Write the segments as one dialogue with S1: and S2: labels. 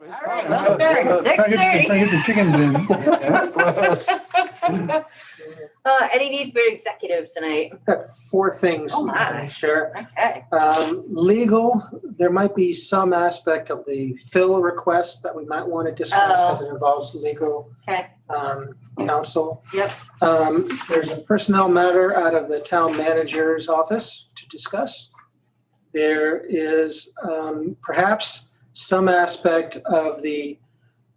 S1: right, let's start,
S2: If I
S1: six
S2: get-
S1: thirty.
S2: If I get the chickens in.
S1: Uh, any need for executive tonight?
S3: Got four things.
S1: Oh, my.
S3: Sure.
S1: Okay.
S3: Um, legal, there might be some aspect of the fill request that we might want to discuss because it involves legal.
S1: Oh. Okay.
S3: Um, counsel.
S1: Yep.
S3: Um, there's a personnel matter out of the town manager's office to discuss. There is, um, perhaps some aspect of the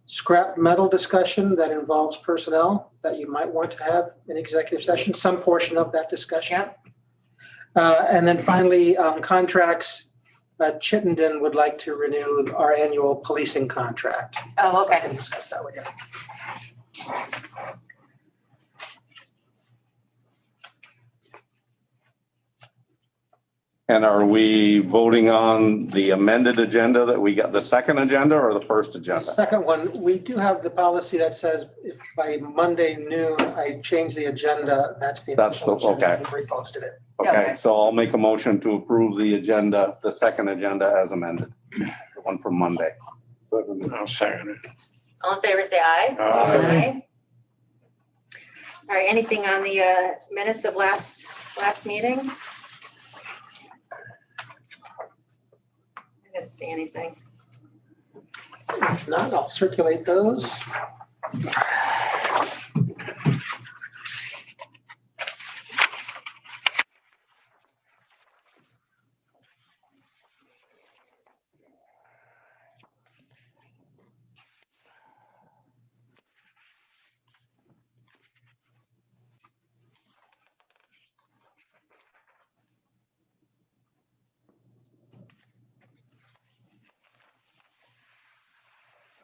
S3: scrap metal discussion that involves personnel that you might want to have in executive session, some portion of that discussion.
S1: Yep.
S3: Uh, And then finally, on contracts, uh, Chittenden would like to renew our annual policing contract.
S1: Oh,
S3: I
S1: okay.
S3: can discuss that with you.
S4: And are we voting on the amended agenda that we got, the second agenda or the first
S3: The
S4: agenda?
S3: second one, we do have the policy that says if by Monday noon I change the agenda, that's the.
S4: That's the-
S3: official agenda.
S4: okay.
S3: We Reposted it.
S4: Okay, so I'll make a motion to approve the agenda, the second agenda as amended, the one from Monday.
S5: I'll second it. Uh,
S1: All in favor, say aye.
S5: Aye.
S1: All right, anything on the uh, minutes of last, last meeting? I didn't see anything.
S3: If not, I'll circulate those.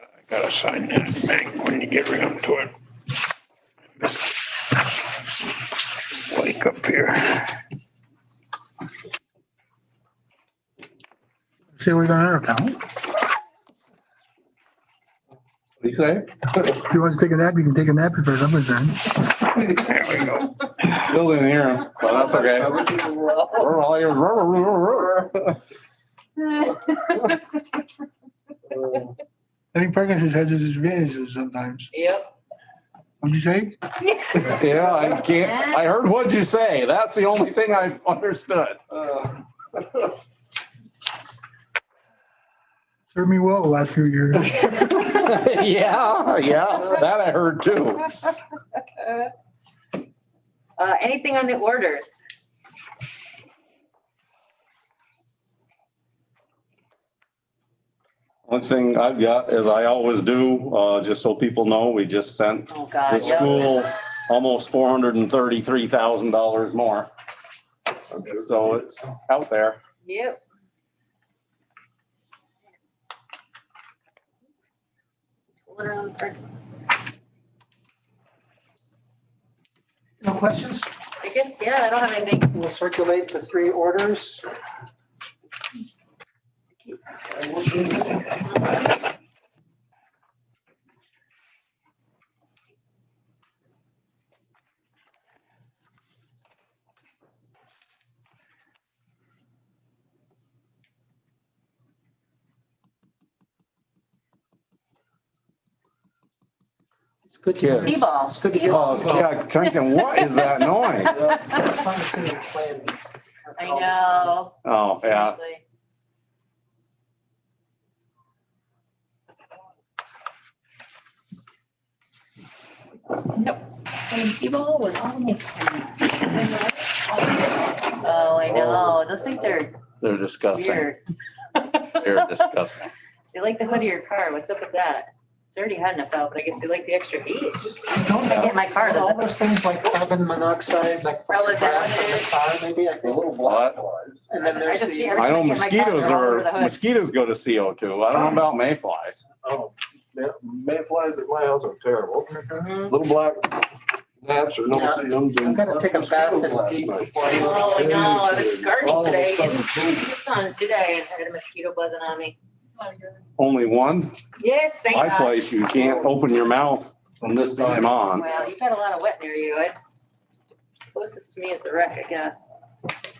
S5: I gotta sign that thing when you get around to it. Wake up here.
S2: See what's on our account.
S4: What do you say?
S2: If you want to take a nap, you can take a nap if I'm concerned.
S5: There we go.
S4: Still didn't hear him, but that's okay. We're all here.
S2: I think Parkinson's has its advantages sometimes.
S1: Yep.
S2: What'd you say?
S4: Yeah, I can't, I heard what you say. That's the only thing I understood. Uh,
S2: Served me well the last few years.
S4: Yeah, yeah, that I heard too.
S1: Uh, anything on the orders?
S4: One thing I've got, as I always do, uh, just so people know, we just sent
S1: Oh, God.
S4: the
S1: yep.
S4: school almost four hundred and thirty-three thousand dollars more. So it's out there.
S1: Yep. Hold on for-
S3: No questions?
S1: I guess, yeah, I don't have anything.
S3: We'll circulate the three orders. It's good to.
S4: Yes.
S1: T-ball.
S3: It's good to get.
S4: Oh, yeah, thinking, what is that noise?
S3: It's fun to see you playing.
S1: I know.
S4: Oh, yeah,
S1: Seriously.
S6: And people was all mixed.
S1: Oh, I know. Those things are
S4: they're disgusting.
S1: weird.
S4: They're disgusting.
S1: They like the hood of your car. What's up with that? It's already hot enough out, but I guess they like the extra heat.
S3: Don't
S1: I get in my car,
S3: All
S1: does it?
S3: those things like carbon monoxide, like. from the
S1: Relevant.
S3: car, Maybe, I think.
S4: But
S3: And then there's
S1: I just see
S3: the,
S1: every-
S4: I know
S1: Every time I get in my car,
S4: mosquitoes
S1: they're all over
S4: are,
S1: the hood.
S4: mosquitoes go to CO two. I don't know about mayflies.
S7: Oh, man, mayflies at my house are terrible.
S1: Mhm.
S7: Little black gnats or no
S3: Mm-hmm. Yeah.
S7: see them.
S3: I'm gonna take a bath in the deep before I.
S1: Oh, I know. I was gardening
S7: All of a
S1: today.
S7: sudden,
S1: and- Just on today, and I had a mosquito buzzing on me.
S4: Only one,
S1: Yes, thank
S4: my
S1: God.
S4: place, you can't open your mouth from this time on.
S1: Well, you got a lot of wet near you. I- Closest to me is the wreck, I guess.